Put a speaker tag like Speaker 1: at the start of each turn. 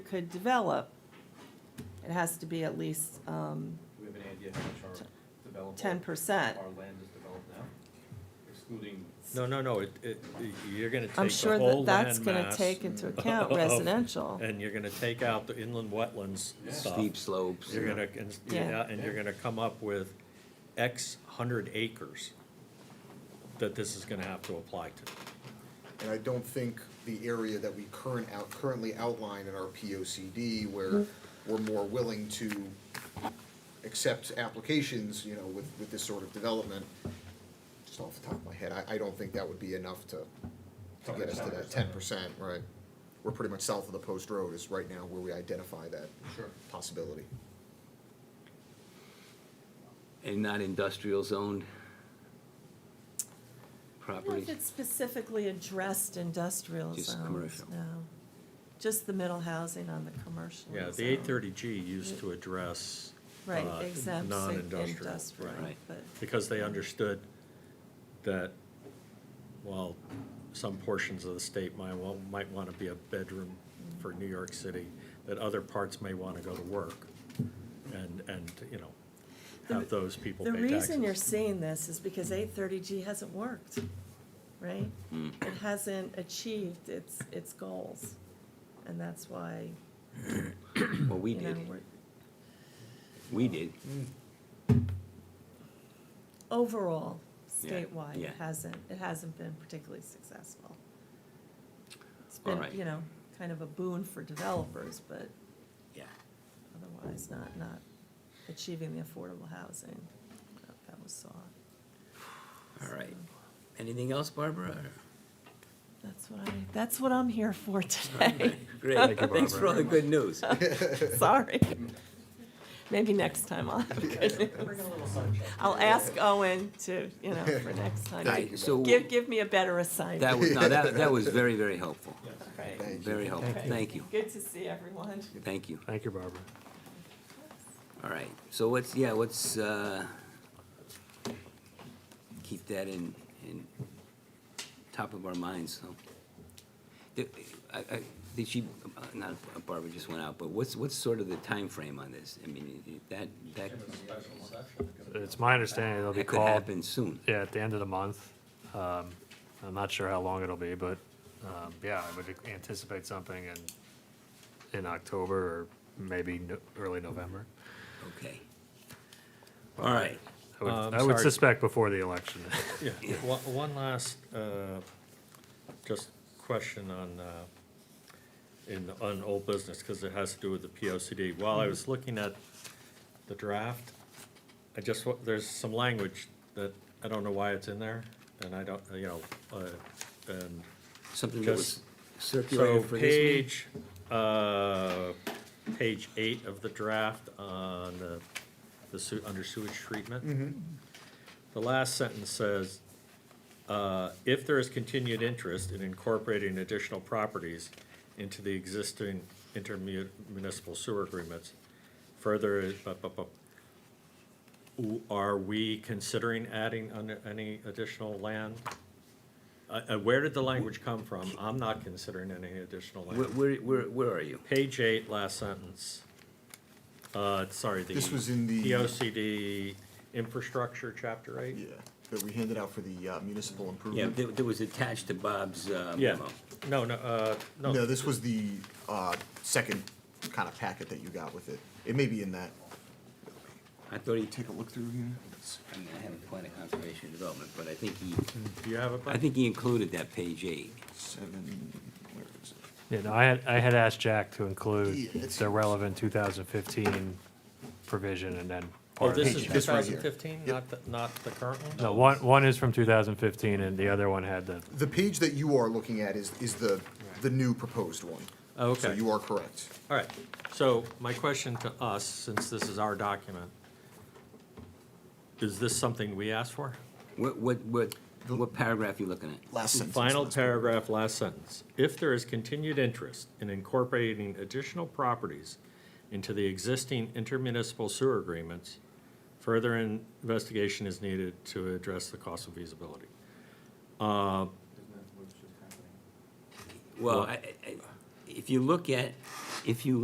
Speaker 1: could develop, it has to be at least, um,
Speaker 2: Do we have any idea how much our developable?
Speaker 1: ten percent.
Speaker 2: Our land is developed now, excluding.
Speaker 3: No, no, no, it, it, you're gonna take
Speaker 1: I'm
Speaker 3: the
Speaker 1: sure
Speaker 3: whole
Speaker 1: that
Speaker 3: landmass.
Speaker 1: that's gonna take into account
Speaker 3: of-
Speaker 1: residential.
Speaker 3: And you're gonna take out the inland wetlands
Speaker 2: Yeah.
Speaker 3: stuff.
Speaker 4: steep slopes.
Speaker 3: You're gonna, and,
Speaker 1: Yeah.
Speaker 3: yeah, and you're gonna come up with X hundred acres that this is gonna have to apply to.
Speaker 5: And I don't think the area that we current out, currently outline in our P O C D where we're more willing to accept applications, you know, with, with this sort of development, just off the top of my head, I, I don't think that would be enough to, to get us to that ten percent, right? We're pretty much south of the post road is right now where we identify that
Speaker 2: Sure.
Speaker 5: possibility.
Speaker 4: And not industrial zoned
Speaker 1: I don't know if
Speaker 4: properties.
Speaker 1: it's specifically addressed industrial
Speaker 4: Just
Speaker 1: zones,
Speaker 4: commercial.
Speaker 1: no. Just the middle housing on the commercial.
Speaker 3: Yeah, the
Speaker 1: zone.
Speaker 3: eight thirty G used to address,
Speaker 1: Right,
Speaker 3: uh,
Speaker 1: exempts in-
Speaker 3: non-industrial,
Speaker 1: industrial,
Speaker 3: right.
Speaker 4: Right.
Speaker 1: but,
Speaker 3: Because they understood that, while some portions of the state might, wa- might wanna be a bedroom for New York City, that other parts may wanna go to work and, and, you know, have
Speaker 1: The-
Speaker 3: those people
Speaker 1: The
Speaker 3: pay
Speaker 1: reason you're
Speaker 3: taxes.
Speaker 1: seeing this is because eight thirty G hasn't worked, right?
Speaker 4: Hmm.
Speaker 1: It hasn't achieved its, its goals, and that's why,
Speaker 4: Well, we
Speaker 1: you know,
Speaker 4: did,
Speaker 1: we're,
Speaker 4: we did.
Speaker 1: overall,
Speaker 4: Yeah,
Speaker 1: statewide, it
Speaker 4: yeah.
Speaker 1: hasn't, it hasn't been particularly successful. It's
Speaker 4: All
Speaker 1: been,
Speaker 4: right.
Speaker 1: you know, kind of a boon for developers, but
Speaker 4: Yeah.
Speaker 1: otherwise not, not achieving the affordable housing that- that was sought.
Speaker 4: All right. Anything else, Barbara? or-
Speaker 1: That's what I, that's what I'm here for today.
Speaker 4: Great, thanks for all the good news.
Speaker 1: Sorry. Maybe next time I'll have good news. I'll ask Owen to, you know, for next time. to
Speaker 4: Right, so
Speaker 1: Give, give me a better assignment.
Speaker 4: that was, no, that, that was very, very helpful.
Speaker 1: Right.
Speaker 4: Very helpful. Thank you.
Speaker 1: Good to see everyone.
Speaker 4: Thank you.
Speaker 3: Thank you, Barbara.
Speaker 4: All right. So what's, yeah, what's, uh, keep that in, in top of our minds, so. Did, I, I, did she, uh, not Barbara just went out, but what's, what's sort of the time frame on this? I mean, i- i- that, that,
Speaker 6: It's my understanding it'll be
Speaker 4: that could
Speaker 6: called,
Speaker 4: happen soon.
Speaker 6: yeah, at the end of the month. Um, I'm not sure how long it'll be, but, um, yeah, I would anticipate something in, in October or maybe no- early November.
Speaker 4: Okay. All right.
Speaker 6: I would,
Speaker 3: Um,
Speaker 6: I would
Speaker 3: sorry.
Speaker 6: suspect before the election.
Speaker 3: Yeah, one, one last, uh, just question on, uh, in, on old business, because it has to do with the P O C D. While I
Speaker 4: Mm-hmm.
Speaker 3: was looking at the draft, I just, wa- there's some language that I don't know why it's in there, and I don't, you know, uh, and
Speaker 4: Something that was
Speaker 3: Just- so
Speaker 4: circulated for this meeting?
Speaker 3: page, uh, page eight of the draft on the, the su- under sewage
Speaker 4: Mm-hmm.
Speaker 3: treatment. The last sentence says, uh, if there is continued interest in incorporating additional properties into the existing intermunicipal sewer agreements, further, uh, bu- bu- bu- w- are we considering adding un- any additional land? Uh, uh, where did the language come from? I'm not considering any additional
Speaker 4: Where,
Speaker 3: land.
Speaker 4: where, where, where are you?
Speaker 3: Page eight, last sentence. Uh, sorry, the.
Speaker 5: This was in the-
Speaker 3: POCD infrastructure, chapter eight?
Speaker 5: that we handed out for the uh, municipal
Speaker 4: Yeah,
Speaker 5: improvement.
Speaker 4: that, that was attached to Bob's, uh,
Speaker 3: Yeah,
Speaker 4: memo.
Speaker 3: no, no, uh, no.
Speaker 5: No, this was the uh, second kind of packet that you got with it. It may be in that.
Speaker 4: I thought he
Speaker 5: Take a look through here. It's-
Speaker 4: I mean, I haven't planned a conservation development, but I think he,
Speaker 3: Do you have a?
Speaker 4: I think he included that page eight.
Speaker 5: Seven, where is it?
Speaker 6: You know, I had, I had asked Jack to
Speaker 5: Yeah,
Speaker 6: include
Speaker 5: it's-
Speaker 6: the relevant two thousand fifteen provision and then.
Speaker 3: Oh,
Speaker 6: part of
Speaker 3: this is
Speaker 6: the-
Speaker 5: Page.
Speaker 3: two
Speaker 5: This right
Speaker 3: thousand
Speaker 5: here.
Speaker 3: fifteen,
Speaker 5: Yep.
Speaker 3: not, the- not the current one?
Speaker 6: No, one, one is from two thousand fifteen and the other one had the,
Speaker 5: The page that you are looking at is, is the, the new proposed one.
Speaker 3: Oh,
Speaker 5: So
Speaker 3: okay.
Speaker 5: you are correct.
Speaker 3: All right, so my question to us, since this is our document, is this something we asked for?
Speaker 4: What, what, what, what paragraph you looking at?
Speaker 5: Last sentence.
Speaker 3: Final
Speaker 5: last-
Speaker 3: paragraph, last sentence. If there is continued interest in incorporating additional properties into the existing intermunicipal sewer agreements, further investigation is needed to address the cost of feasibility. Uh,
Speaker 2: Isn't that what's just happening?
Speaker 4: Well, I, I, I- if you look at, if you